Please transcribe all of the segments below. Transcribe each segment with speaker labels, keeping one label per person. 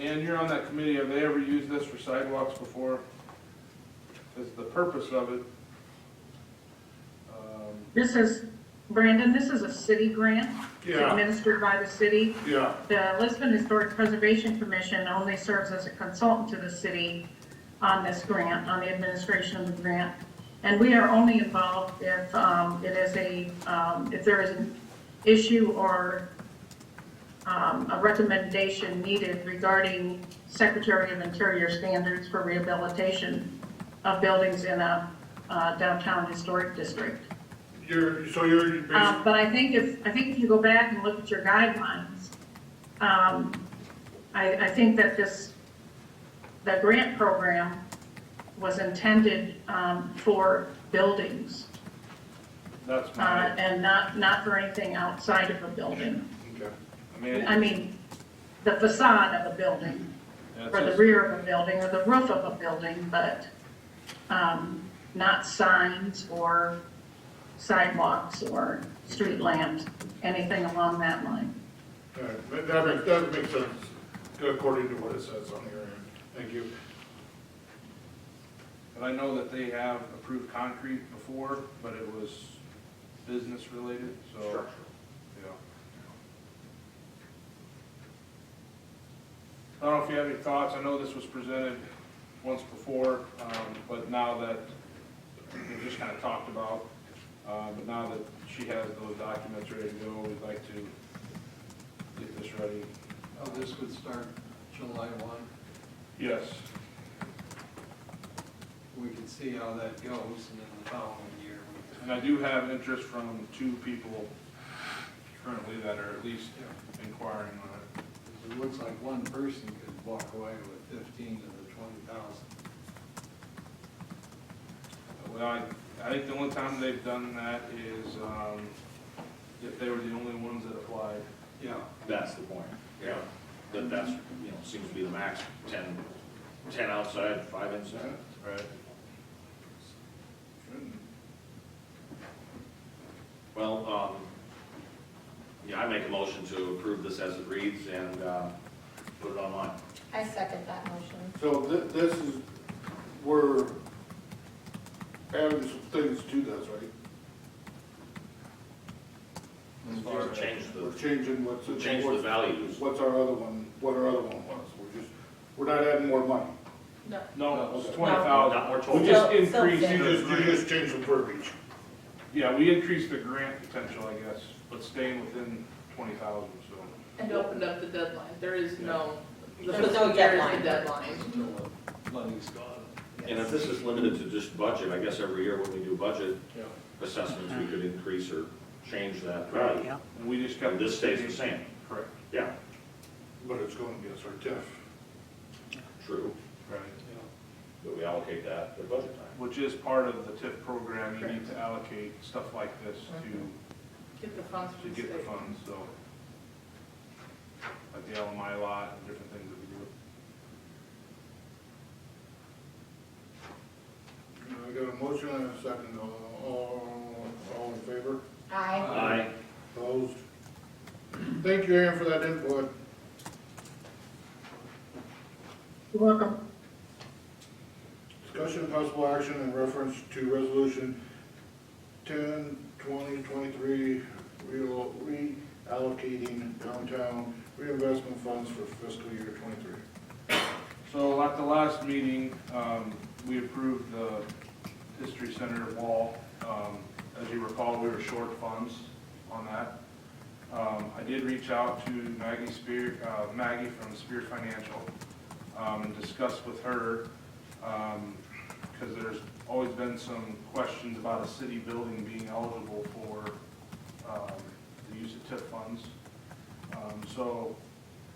Speaker 1: And you're on that committee, have they ever used this for sidewalks before? Is the purpose of it? um,
Speaker 2: This is, Brandon, this is a city grant. It's
Speaker 1: Yeah.
Speaker 2: Administered by the city.
Speaker 1: Yeah,
Speaker 2: The Lisbon Historic Preservation Commission only serves as a consultant to the city on this grant, on the administration of the grant. And we are only involved if um, it is a, um, if there is an issue or um, a recommendation needed regarding Secretary of Interior standards for rehabilitation of buildings in a uh, downtown historic district.
Speaker 3: You're, so you're,
Speaker 2: Um, But I think if, I think if you go back and look at your guidelines, um, I, I think that this, the grant program was intended um, for buildings
Speaker 1: that's
Speaker 2: uh,
Speaker 1: my,
Speaker 2: and not, not for anything outside of a building.
Speaker 3: okay.
Speaker 1: I mean,
Speaker 2: I mean, the facade of a building,
Speaker 1: it's
Speaker 2: or the
Speaker 1: just-
Speaker 2: rear of a building, or the roof of a building, but um, not signs or sidewalks or street lamps, anything along that line.
Speaker 3: All right, That- that makes, that makes sense, according to what it says on here, thank you.
Speaker 1: but I know that they have approved concrete before, but it was business related, so, yeah. I don't know if you have any thoughts, I know this was presented once before, um, but now that, we just kind of talked about, uh, but now that she has those documents ready to go, we'd like to get this ready.
Speaker 4: Oh, this would start July one.
Speaker 1: Yes,
Speaker 4: We could see how that goes and then the following year. we-
Speaker 1: and I do have interest from two people currently that are at least
Speaker 4: Yeah,
Speaker 1: inquiring on it.
Speaker 4: 'cause It looks like one person could walk away with fifteen to the twenty thousand.
Speaker 1: Well, I, I think the only time they've done that is, um, if they were the only ones that applied.
Speaker 4: Yeah,
Speaker 5: That's the point. Yeah. That, that's, you know, seems to be the max, ten, ten outside, five inside.
Speaker 1: Right.
Speaker 5: Well, um, yeah, I make a motion to approve this as it reads and, uh, put it online.
Speaker 6: I second that motion.
Speaker 3: So thi- this is, we're adding some things to this, right?
Speaker 1: As far as-
Speaker 5: Change
Speaker 3: We're
Speaker 5: the,
Speaker 3: changing what's.
Speaker 5: change the values.
Speaker 3: What's our other one, what our other one was, we're just, we're not adding more money.
Speaker 6: No.
Speaker 1: No, it's
Speaker 3: Okay.
Speaker 1: twenty thousand.
Speaker 5: Not more
Speaker 3: We
Speaker 5: total.
Speaker 1: just
Speaker 6: Still- still
Speaker 1: increased
Speaker 6: same.
Speaker 3: You
Speaker 1: the
Speaker 3: just, you
Speaker 1: grant.
Speaker 3: just changed the verbiage.
Speaker 1: Yeah, we increased the grant potential, I guess, but staying within twenty thousand, so.
Speaker 7: And opened up the deadline, there is no, the
Speaker 6: There's no
Speaker 7: fiscal year is
Speaker 6: deadline.
Speaker 7: the deadline.
Speaker 4: until the money's gone.
Speaker 5: And if this is limited to just budget, I guess every year when we do budget
Speaker 4: Yeah.
Speaker 5: assessments, we could increase or change that value.
Speaker 1: And we just kept.
Speaker 5: And this stays the same.
Speaker 1: Correct.
Speaker 5: Yeah,
Speaker 3: But it's going against our TIF.
Speaker 5: true,
Speaker 1: Right.
Speaker 5: but we allocate that at budget time.
Speaker 1: Which is part of the TIP program, you need to allocate stuff like this to,
Speaker 7: Get the funds from
Speaker 1: to
Speaker 7: the
Speaker 1: get the
Speaker 7: state.
Speaker 1: funds, so. Like the LMI lot and different things that we do.
Speaker 3: I got a motion and a second, all, all- all in favor?
Speaker 6: I
Speaker 5: Aye.
Speaker 3: Opposed? Thank you, Aaron, for that input.
Speaker 2: You're welcome.
Speaker 3: Discussion and possible action in reference to resolution ten twenty twenty-three, reallocating downtown reinvestment funds for fiscal year twenty-three.
Speaker 1: So at the last meeting, um, we approved the History Center wall. Um, As you recall, we were short funds on that. Um, I did reach out to Maggie Spear, uh, Maggie from Spear Financial, um, and discuss with her, because there's always been some questions about a city building being eligible for um, the use of TIP funds. Um, So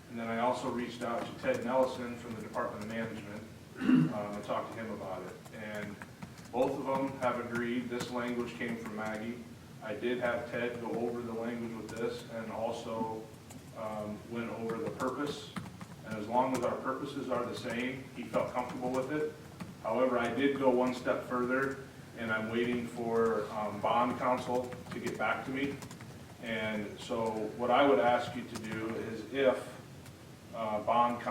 Speaker 1: and then I also reached out to Ted Nelson from the Department of Management, um, and talked to him about it. And both of them have agreed, this language came from Maggie. I did have Ted go over the language with this and also, um, went over the purpose. And as long as our purposes are the same, he felt comfortable with it. However, I did go one step further, and I'm waiting for, um, bond counsel to get back to me. And so what I would ask you to do is if, uh, bond counsel